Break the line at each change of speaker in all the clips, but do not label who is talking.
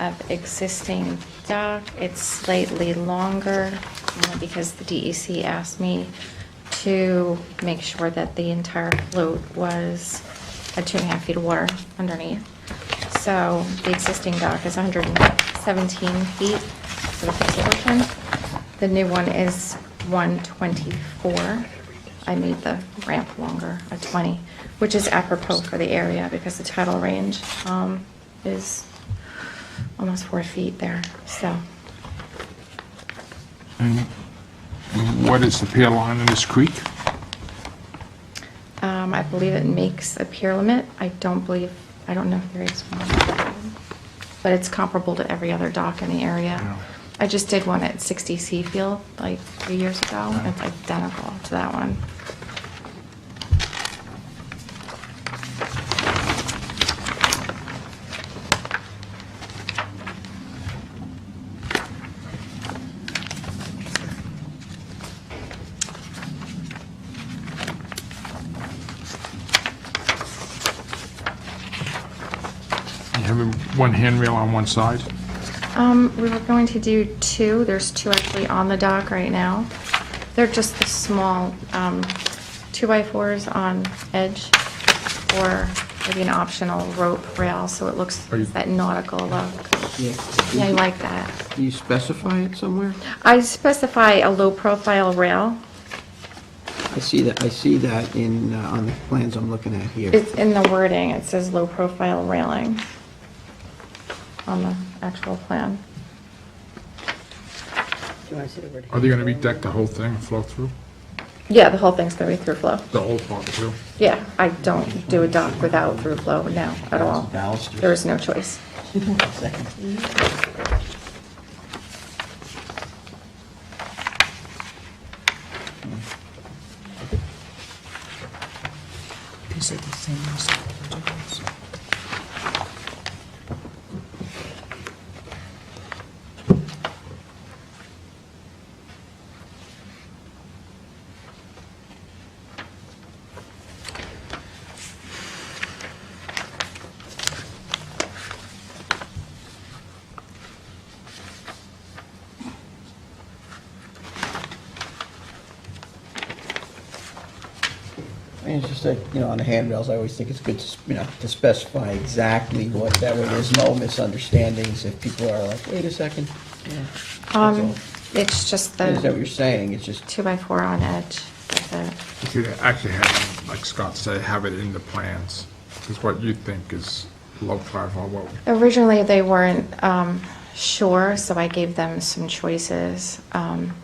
of existing dock. It's slightly longer uh, because the DEC asked me to make sure that the entire float was, had two and a half feet of water underneath. So the existing dock is 117 feet for the fixed portion. The new one is 124. I made the ramp longer, a 20, which is apropos for the area because the tidal range um, is almost four feet there, so.
What is the pier line in this creek?
um, I believe it makes a pier limit. I don't believe, I don't know if there is one. But it's comparable to every other dock in the
Yeah.
area. I just did one at 60 Seafield like three years ago. and It's identical to that one.
You have one handrail on one side?
Um, we were going to do two, there's two actually on the dock right now. They're just the small, um, two-by-fours on edge, or maybe an optional rope rail, so it looks
Are you- Mm-hmm.
that nautical look.
Yeah.
Yeah, I like that.
Do you specify it somewhere?
I specify a low-profile rail.
I see that, I see that in, uh, on the plans I'm looking at here.
It's in the wording, it says low-profile railing on the actual plan.
Are they gonna be decked the whole thing and flow through?
Yeah, the whole thing's gonna be through flow.
The whole part through?
Yeah, I don't do a dock without through flow now at all.
Balusters.
There is no choice.
These are the same as the originals.
I mean, it's just like, you know, on the handrails, I always think it's good to, s- you know, to specify exactly what, that way there's no misunderstandings if people are like, wait a second. Yeah, that's all.
Um, it's just
Is that what
the
you're saying? It's just,
two-by-four on edge. That's it.
You could actually have, like Scott said, have it in the plans, because what you think is low profile, what,
Originally, they weren't um, sure, so I gave them some choices. Um,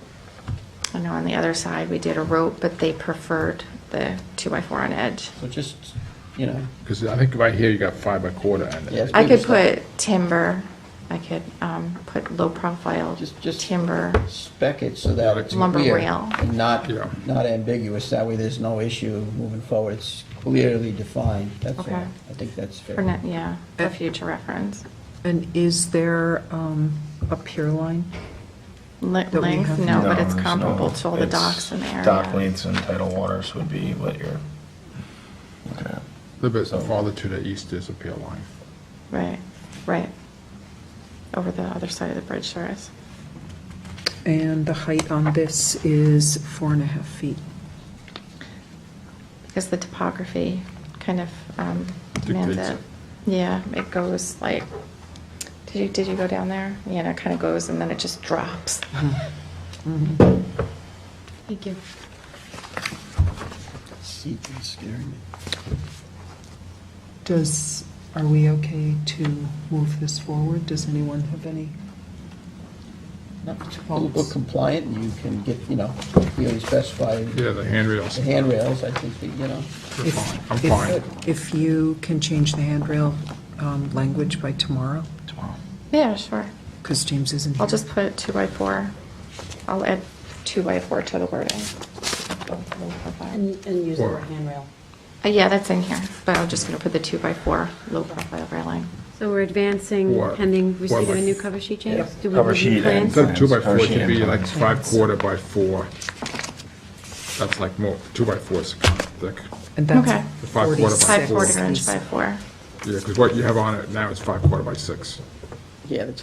I know on the other side, we did a rope, but they preferred the two-by-four on edge.
so just, you know,
because I think right here you got five by quarter and
Yes.
I could
Maybe
put timber, I could um, put low-profile
Just- just-
timber.
spec it so that it's
Lumber
clear
rail.
and not,
Yeah.
not ambiguous. That way there's no issue moving forward. It's clearly defined. That's all.
Okay.
I think that's fair.
For, ne- yeah, for future reference.
And is there um, a pier line?
Li-
we
Length,
have-
no, but it's
there's no-
comparable to all the
it's
docks in the area.
Dock lengths and tidal waters would be what you're looking at.
A little bit farther to the east is a pier line.
Right, right. Over the other side of the bridge, there is.
And the height on this is four and a half feet.
because the topography kind of um, demands
Dictates
it. Yeah, it goes like, did you, did you go down there? Yeah, and it kind of goes and then it just drops. Thank you.
Seat is scaring me.
Does, are we okay to move this forward? Does anyone have any?
Not Look compliant, you can get, you know, clearly specify
Yeah, the handrails,
the handrails, I think, that, you know.
they're
if-
fine, I'm
if-
fine.
If you can change the handrail um, language by tomorrow,
Tomorrow.
Yeah, sure.
because James isn't here.
I'll just put two by four. I'll add two by four to the wording.
And, and use the
Or-
handrail.
Uh, Yeah, that's in here, but I'm just going to put the two by four low profile railing.
So we're advancing
Or-
pending receipt of
or-
a new cover sheet, James? Do we
Cover
review
sheet and-
plans?
Instead of two by four, it
Plans.
should be like five quarter by four. That's like more, two by four is kind of thick.
And
Okay.
that's
The five quarter by
Five
four.
quarter
forty-six.
inch by four.
Yeah, because what you have on it now is five quarter by six.
Yeah, that's a